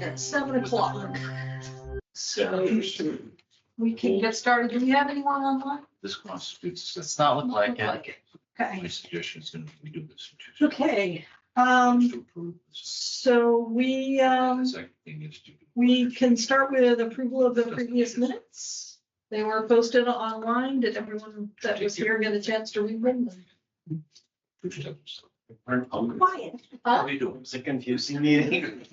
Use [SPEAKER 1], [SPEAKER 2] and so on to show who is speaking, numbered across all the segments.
[SPEAKER 1] at seven o'clock. So we can get started. Do we have anyone online?
[SPEAKER 2] This constitutes, does not look like
[SPEAKER 1] Doesn't
[SPEAKER 2] it.
[SPEAKER 1] look like it.
[SPEAKER 2] My
[SPEAKER 1] Okay,
[SPEAKER 2] suggestion is gonna be do this.
[SPEAKER 1] okay, um,
[SPEAKER 2] To approve this.
[SPEAKER 1] so we, um,
[SPEAKER 2] The second thing is to-
[SPEAKER 1] we can start with approval of the previous minutes. They were posted online. Did everyone that was here get a chance to read them?
[SPEAKER 2] How
[SPEAKER 1] Quiet. Huh?
[SPEAKER 2] are you doing?
[SPEAKER 3] It's a confusing meeting.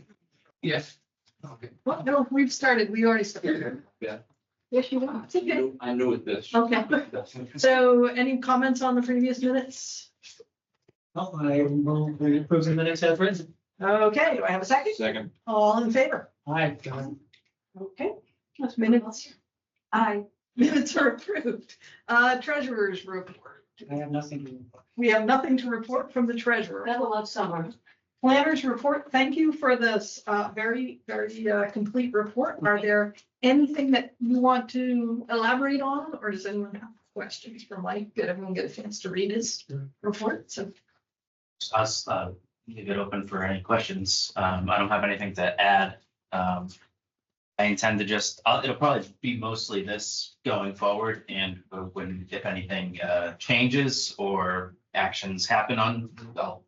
[SPEAKER 2] Yes. Okay.
[SPEAKER 1] What? No, we've started. We already started.
[SPEAKER 2] Yeah.
[SPEAKER 1] Yes, you want. uh, It's okay.
[SPEAKER 2] I knew it this.
[SPEAKER 1] Okay. So any comments on the previous minutes?
[SPEAKER 3] Oh, I will approve the minutes as written.
[SPEAKER 1] Okay, do I have a second?
[SPEAKER 2] Second.
[SPEAKER 1] All in favor?
[SPEAKER 3] Hi, John.
[SPEAKER 1] Okay, that's minutes. Aye. Minutes are approved. Uh, treasurer's report.
[SPEAKER 3] I have nothing. to-
[SPEAKER 1] We have nothing to report from the treasurer.
[SPEAKER 4] That'll love summer.
[SPEAKER 1] Planners report, thank you for this uh, very, very uh, complete report. Are there anything that you want to elaborate on? Or does anyone have questions for Mike? Did everyone get a chance to read his report? So,
[SPEAKER 5] us, uh, leave it open for any questions. Um, I don't have anything to add. Um, I intend to just, uh, it'll probably be mostly this going forward and uh, when, if anything, uh, changes or actions happen on, I'll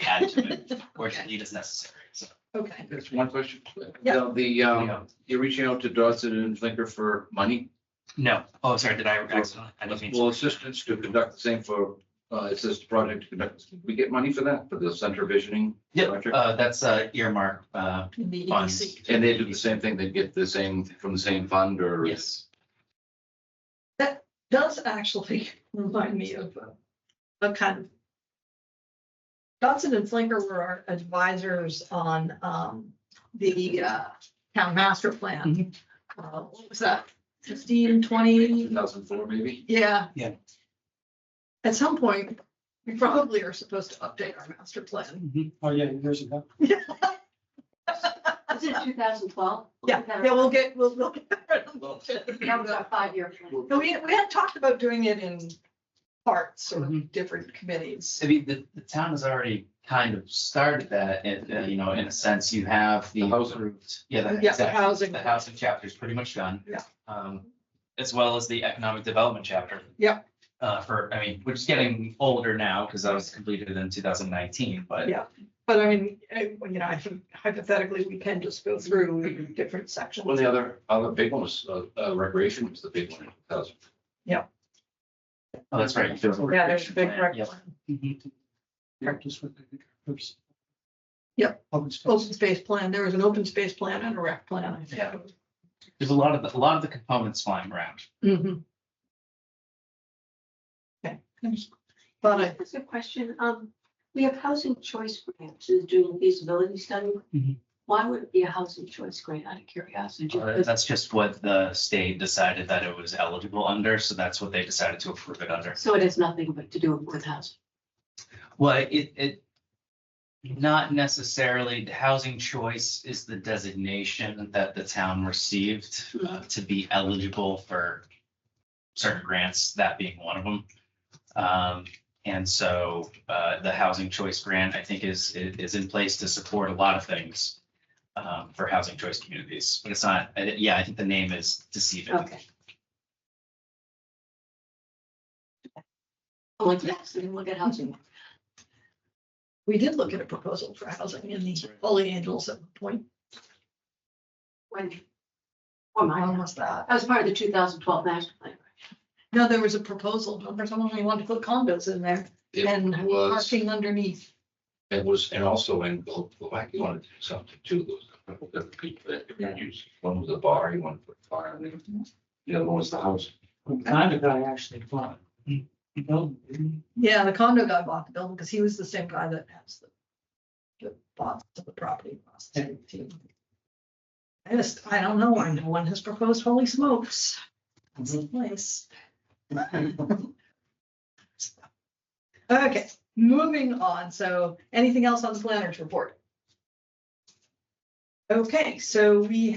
[SPEAKER 5] add to it or delete as necessary. So,
[SPEAKER 1] okay.
[SPEAKER 2] That's one question.
[SPEAKER 1] Yeah.
[SPEAKER 2] Now, The,
[SPEAKER 5] you
[SPEAKER 2] um,
[SPEAKER 5] know,
[SPEAKER 2] you're reaching out to Dodson and Flinker for money,
[SPEAKER 5] No, oh, sorry, did I accidentally? I didn't mean to.
[SPEAKER 2] well, assistance to conduct the same for, uh, it's this project to conduct. We get money for that, for the center visioning.
[SPEAKER 5] Yeah,
[SPEAKER 2] project?
[SPEAKER 5] uh, that's uh, earmark, uh,
[SPEAKER 1] in the
[SPEAKER 5] funds.
[SPEAKER 1] EDC.
[SPEAKER 2] And they do the same thing, they get the same, from the same fund or?
[SPEAKER 5] Yes.
[SPEAKER 1] does actually remind me of a- a kind of. Dodson and Flinker were our advisors on um the uh town master
[SPEAKER 5] Mm-hmm.
[SPEAKER 1] plan. Uh, What was that, fifteen,
[SPEAKER 2] Two
[SPEAKER 1] twenty?
[SPEAKER 2] thousand four, maybe?
[SPEAKER 1] Yeah.
[SPEAKER 5] Yeah.
[SPEAKER 1] At some point, we probably are supposed to update our master plan.
[SPEAKER 3] Oh, yeah, years ago.
[SPEAKER 4] Is it two thousand twelve?
[SPEAKER 1] Yeah, yeah, we'll get, we'll look.
[SPEAKER 4] That was our five-year plan.
[SPEAKER 1] No, we, we had talked about doing it in parts or
[SPEAKER 5] Mm-hmm.
[SPEAKER 1] different committees.
[SPEAKER 5] I mean, the, the town has already kind of started that, and, uh, you know, in a sense, you have the.
[SPEAKER 2] The housing.
[SPEAKER 5] approved- Yeah, the,
[SPEAKER 1] Yeah, the
[SPEAKER 5] exactly,
[SPEAKER 1] housing.
[SPEAKER 5] the housing chapter is pretty much done.
[SPEAKER 1] Yeah.
[SPEAKER 5] Um, as well as the economic development chapter.
[SPEAKER 1] Yeah.
[SPEAKER 5] Uh, for, I mean, which is getting older now, because that was completed in two thousand nineteen, but.
[SPEAKER 1] Yeah. But I mean, I- you know, I think hypothetically, we can just go through different sections.
[SPEAKER 2] Well, the other, other big one was, uh, uh, recreation was the big one, in 2000.
[SPEAKER 5] Oh, that's right.
[SPEAKER 1] Yeah, there's a big rec.
[SPEAKER 5] Yeah.
[SPEAKER 3] Mm-hmm.
[SPEAKER 5] Mhm.
[SPEAKER 3] Practice with the Oh, groups.
[SPEAKER 1] Yep.
[SPEAKER 3] Open space.
[SPEAKER 1] Open space plan, there was an open space plan and a rec plan, I
[SPEAKER 5] Yeah.
[SPEAKER 1] think.
[SPEAKER 5] There's a lot of, the- a lot of the components flying around.
[SPEAKER 1] Mhm. Okay. But I,
[SPEAKER 4] That's a question. Um, we have housing choice grants, is doing feasibility study.
[SPEAKER 5] Mhm.
[SPEAKER 4] Why would it be a housing choice grant out of curiosity?
[SPEAKER 5] Uh, That's just what the state decided that it was eligible under, so that's what they decided to approve it under.
[SPEAKER 4] So it has nothing but to do with housing.
[SPEAKER 5] Well, it, it, not necessarily, the housing choice is the designation that the town received uh, to be eligible for certain grants, that being one of them. Um, and so, uh, the housing choice grant, I think, is, is in place to support a lot of things um, for housing choice communities, but it's not, I- yeah, I think the name is deceiving.
[SPEAKER 4] Okay. I'm like, yes, and look at housing.
[SPEAKER 1] we did look at a proposal for housing in the Holy Angels at one point.
[SPEAKER 4] When? Or
[SPEAKER 1] When
[SPEAKER 4] mine.
[SPEAKER 1] was that?
[SPEAKER 4] That was part of the two thousand twelve master plan.
[SPEAKER 1] No, there was a proposal, remember someone who wanted to put condos in there and
[SPEAKER 2] It was,
[SPEAKER 1] parking underneath.
[SPEAKER 2] it was, and also in, Glo- Glo- you wanted to do something too. There was a couple different people that you could use. One was a bar, you wanted to put fire in there. The other one was the house.
[SPEAKER 1] Oh.
[SPEAKER 3] Kind of guy actually bought. it. You know,
[SPEAKER 1] Yeah, the condo guy bought the building because he was the same guy that has the. The bought the property. across the street, too. I just, I don't know, why no one has proposed holy smokes. It's the place. Okay, moving on, so anything else on the planners report? Okay, so we